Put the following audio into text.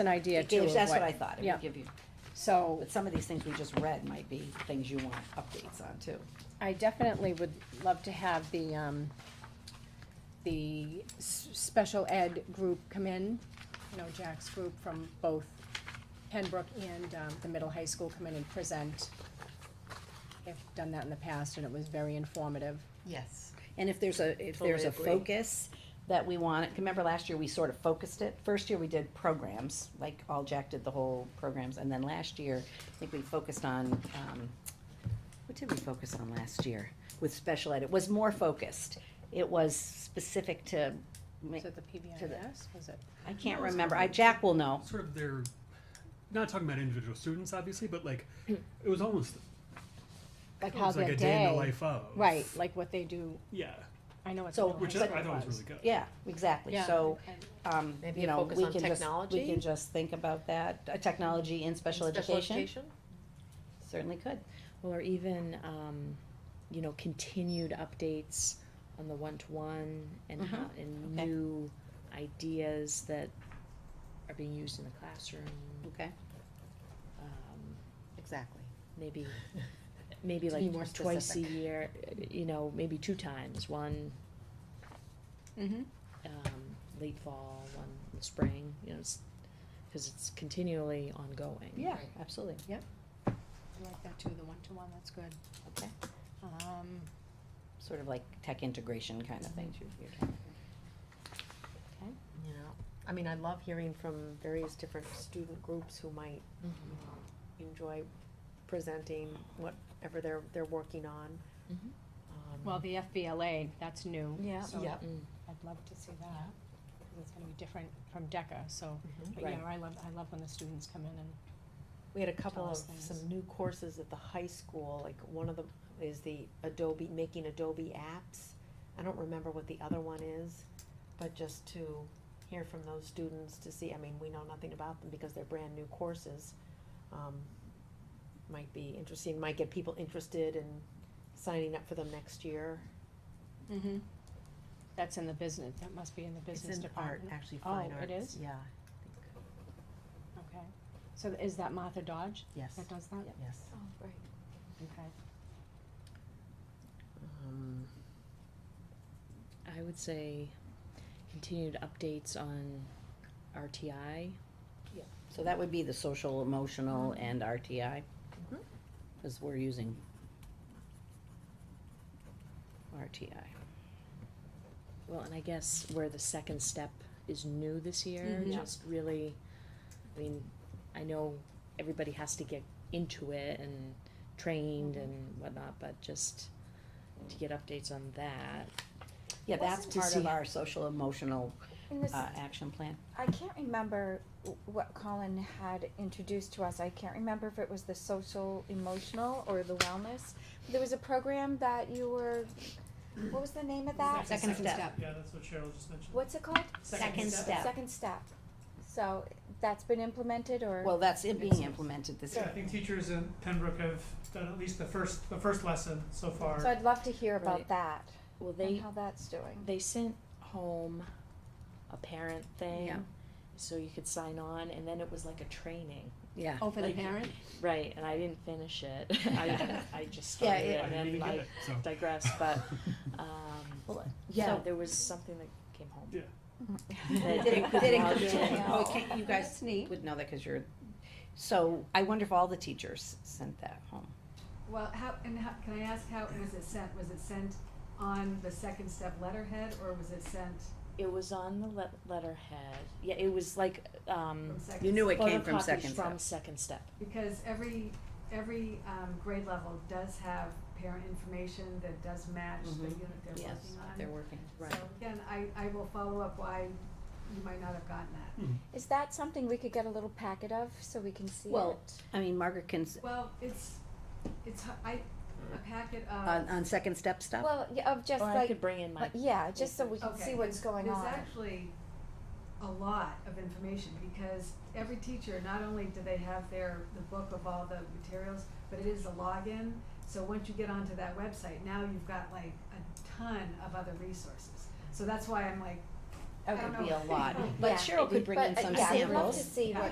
an idea It too gives, of that's what I what, thought, it yeah. would give you, so but some of these things we just read might be things you want updates on too. I definitely would love to have the, um, the s- special ed group come in, you know, Jack's group from both Penbrook and, um, the middle high school come in and present. They've done that in the past and it was very informative. Yes. And if there's a, if there's Totally a agree. focus that we want, remember last year we sort of focused it, first year we did programs, like all Jack did the whole programs, and then last year, I think we focused on, um, what did we focus on last year with special ed? It was more focused, it was specific to, ma- Was it the PBIS? Was it? I can't remember, I, Jack will know. sort of their not talking about individual students obviously but like Hmm. it was almost Like it how was like a that day in the day, life of right, like what they do, yeah I know it's. So- middle Oh, high which is, school i thought was really good Yeah, exactly, Yeah. so, And- um, Maybe you know, focus we on can just, we technology? can just think about that, uh, technology in special education, certainly could. Or even, um, you know, continued updates on the one-to-one and Mhm. Mm-hmm. how, and Okay. new ideas that are being used in the classroom. Okay. Um, Exactly. maybe, maybe To be like more twice a specific. year, you know, maybe two times, one, Mhm. um, late fall, one in the spring, you know, it's, cause it's continually ongoing. Yeah, Right. absolutely. I like that too, the one-to-one, that's good. Okay. Um, Sort of like tech integration kind of thing. you're talking You know, I mean, I love hearing from various different student groups who might Mhm. Mm-hmm. you know, enjoy presenting whatever they're, they're working on. Mm-hmm. Mhm. Um, Well, the FBLA, that's new. Yeah. so Yep. Mm. I'd love to see that. It's gonna be different from DECA, so, Mhm. but yeah, I love, I love when the students come in and, We had a couple Tell of, us some things. new courses at the high school, like one of them is the Adobe, making Adobe apps. I don't remember what the other one is, but just to hear from those students to see, I mean, we know nothing about them because they're brand new courses. Um, might be interesting, might get people interested in signing up for them next year. Mm-hmm. that's in the business, that must be in the business department. actually, Oh, fine it arts, is? Yeah, Okay. So is that Martha Dodge yes, that does that? yes. Oh, great. Okay. Oh. Um, I would say continued updates on RTI. So that would be the social, emotional, and RTI, Mhm. because we're using RTI. Well, and I guess where the second step is new this year, Mhm. Mm-hmm. Yeah. just really, I mean, I know everybody has to get into it and trained Mm-hmm. and whatnot, but just to get updates on that. Yeah, that's Wasn't- part of To see- our social, emotional, And this, uh, action plan. I can't remember w- what Colin had introduced to us. I can't remember if it was the social emotional or the wellness. There was a program that you were, what was the name of that? Second step. Yeah, that's what Cheryl just mentioned. What's it called? Second step. Second step. So that's been implemented or? Well, that's it being It's- implemented this Yeah, I year. think teachers in Pembroke have done at least the first, the first lesson so So far. I'd love to hear Right. about that Well, and they, how that's doing. they sent home a parent Yeah. thing, so you could sign on, and then it was like a training. Yeah. Oh, for the Like- parent? Right, and I didn't finish it. I, I just Yeah, started it- it i didn't and then even get I it so digress, but, um, yeah, So- there was something that came home. Yeah. That Did you it- could did it log come in. to- Yeah. oh, okay, You guys would know that because you're, so I wonder if all the teachers sent that home. Well, how, and how, can I ask how was it sent? Was it sent on the second step letterhead or was it sent It was on the le- letterhead. Yeah, it was like um, from second? Mm. You knew it came from photocopies Second Step. from Second Step. Because every, every, um, grade level does have parent information that does match the Mhm. unit they're Yes, working on. they're working. Right. So again, I, I will follow up why you might not have gotten that. Hmm. Is that something we could get a little packet of so we can see Well, it? I mean, Margaret can, s- Well, it's, it's, h- I, a packet of. on, on second step stuff? Well, yeah, of just Or I like, could bring in my. like, yeah, just so we can Okay, see there's- what's going on. There's actually a lot of information because every teacher, not only do they have their, the book of all the materials, but it is a login. So once you get onto that website, now you've got like a ton of other resources. So that's why I'm like, I That don't would be know. a lot, Yeah. but Cheryl could bring in But, uh, some yeah, I'd love to samples. see what